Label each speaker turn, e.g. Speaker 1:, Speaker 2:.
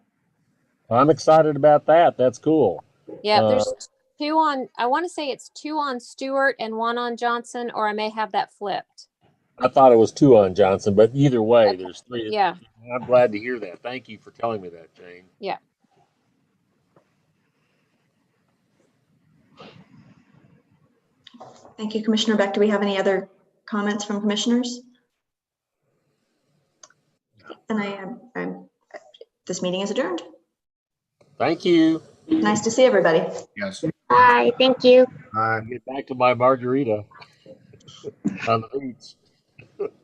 Speaker 1: I'm excited about that. That's cool.
Speaker 2: Yeah,
Speaker 1: Uh,
Speaker 2: there's two on, I want to say it's two on Stewart and one on Johnson, or I may have that flipped.
Speaker 1: I thought it was two on Johnson, but either way, there's three.
Speaker 2: Yeah,
Speaker 1: I'm glad to hear that. Thank you for telling me that, Jane.
Speaker 2: Yeah.
Speaker 3: Thank you, Commissioner Beck. Do we have any other comments from commissioners? And I am, I'm, this meeting is adjourned.
Speaker 1: Thank you.
Speaker 3: Nice to see everybody.
Speaker 4: Yes.
Speaker 5: Bye, thank you.
Speaker 4: Aye.
Speaker 1: Get back to my margarita on the beach.